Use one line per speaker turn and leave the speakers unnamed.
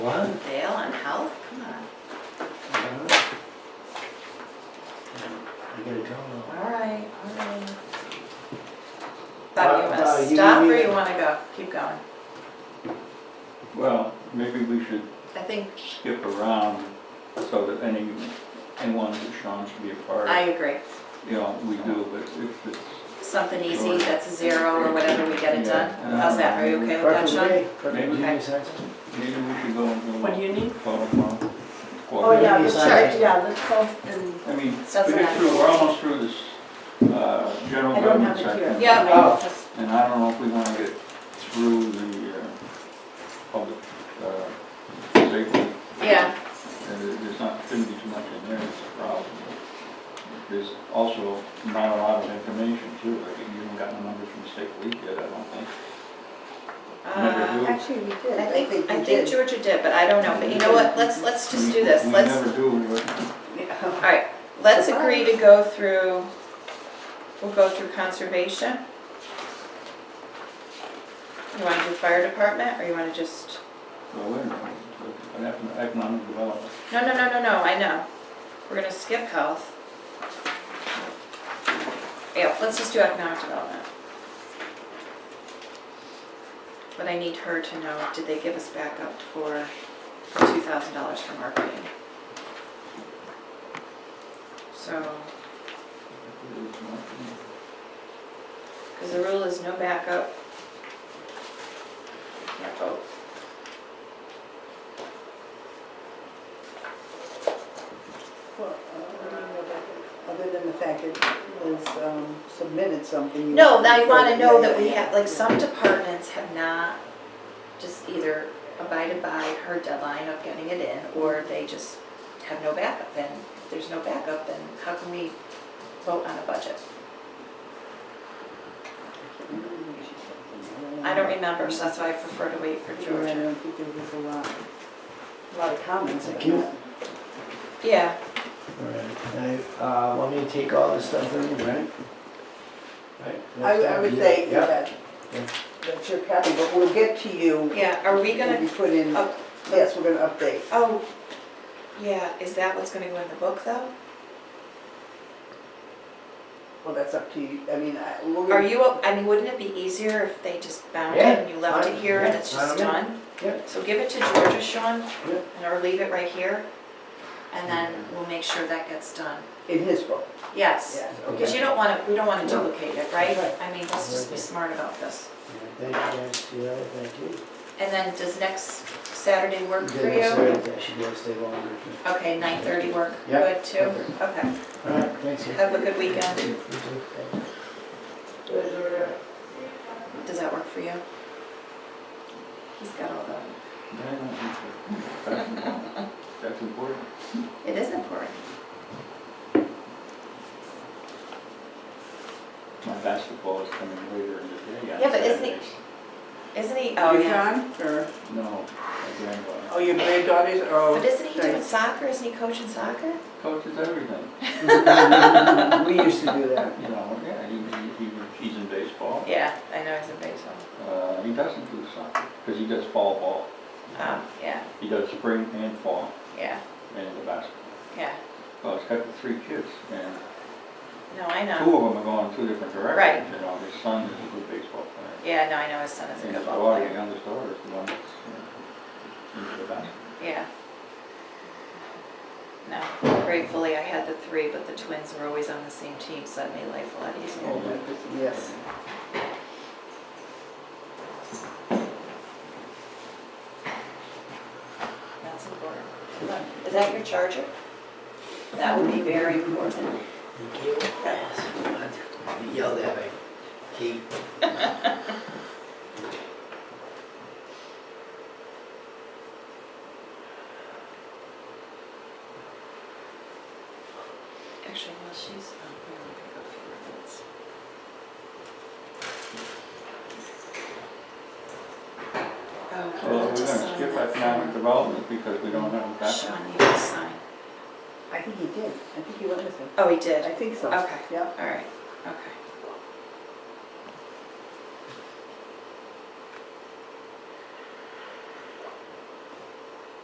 What?
Dale on health, come on.
I gotta go now.
All right, all right.
Uh, uh,
Thought you
you
to stop or
need-
you wanna go, keep going?
Well, maybe we should
I think,
skip around so that any, anyone that Sean should be a part
I
of,
agree.
you know, we do, but if it's,
Something easy, that's a zero or whatever, we get it done.
Yeah.
How's that, are you okay with that,
Preferably
Sean?
me. Preferably
Maybe.
me, Sansa.
maybe we should go and do
What do you need?
Oh,
Oh, yeah, the
Besides
church,
this-
yeah, let's go and,
I mean,
That's
we
what
get
I-
through, we're almost through this, uh, general
I don't
government
have it here.
section.
Yeah, maybe
Oh.
just-
And I don't know if we wanna get through the, uh, public, uh, safety.
yeah,
And there- there's not, shouldn't be too much in there, it's a problem. There's also not a lot of information too, like you haven't gotten the numbers from State Week yet, I don't think. Never
uh,
do.
actually, we did.
I think,
we
I think
did.
Georgia did, but I don't know, but you know what, let's, let's just
We-
do this,
We
let's,
never do, we would-
all right, let's agree to go through, we'll go through conservation. You wanna do fire department, or you wanna just?
well, wait a minute, but what happened to economic development?
No, no, no, no, no, I know. We're gonna skip health. Yeah, let's just do economic development. But I need her to know, did they give us backup for two thousand dollars for marketing? So, because the rule is no backup. Can't vote.
Well, uh, I don't know about that. uh, Other than the fact it was um, submitted something.
No, now you wanna know that we have, like, some departments have not just either abided by her deadline of getting it in, or they just have no backup, and if there's no backup, then how can we vote on a budget? I don't remember, so that's why I prefer to wait for
I
Georgia.
don't think there was a lot, a lot of comments.
Thank you.
Yeah,
All right. I, uh, want me to take all this stuff in, right? Right?
I
Next
I
time,
would
yeah.
say
Yeah.
that, that's your copy, but we'll get to you.
yeah, are we
We'll
gonna,
be put in,
up-
yes, we're gonna update.
oh, yeah, is that what's gonna go in the book, though?
Well, that's up to you, I mean, I, we're
Are
gonna,
you, I mean, wouldn't it be easier if they just bound it
Yeah,
and you left it
fine,
here and
yeah,
it's just
fine with
done?
Yeah.
So give it to Georgia, Sean,
Yeah.
and or leave it right here, and then we'll make sure that gets done.
in his book,
Yes,
yes.
because you don't want to, we don't want to duplicate it, right?
Right.
I mean, let's just be smart about this.
Thank you guys, yeah, thank you.
And then does next Saturday work for
Good, I'm sorry
you?
that She didn't stay longer.
Okay, 9:30 work,
Yeah.
good too? Okay,
All right, thanks. yeah.
have a good weekend.
You too, thank you.
Does that work for you? He's got all
I don't think so. That's important. That's important.
the, it is important.
My basketball is coming later in the day. on
Yeah, but isn't it-
Saturdays.
Isn't he, oh yeah.
or?
No, my granddaughter.
Oh, your granddaughters are all.
But isn't he doing
Right.
soccer? Isn't he coaching soccer?
Coaches everything,
We used to do that.
you know, yeah, he, he, he- he's in baseball.
Yeah, I know he's in baseball.
Uh, he doesn't do soccer, because he does fall ball.
Oh, yeah,
He does spring and fall
yeah,
and the basketball.
yeah.
Well, he's got the three kids, and
No, I
two
know.
of them are going two different directions. You know, his son is a good baseball player.
Yeah, no, I know his son is a
And
good
his
ball
daughter, the
player.
youngest daughter, is the one that's uh, into the basketball.
Yeah. No, gratefully, I had the three, but the twins were always on the same team, so that made life a lot easier.
Yes.
That's important. Is that your charger? That would be very important.
Thank you. Yes, I'm not Yelled at by Kate.
Actually, well, she's, oh, we only pick up four minutes. Oh,
Well,
we
we're
need
gonna
to sign
skip
that
economic
form.
development because we don't have a backup.
Sean, you need to sign.
I think he did. I think he went with it.
Oh, he did?
I think so.
Okay.
Yeah.
All right, okay.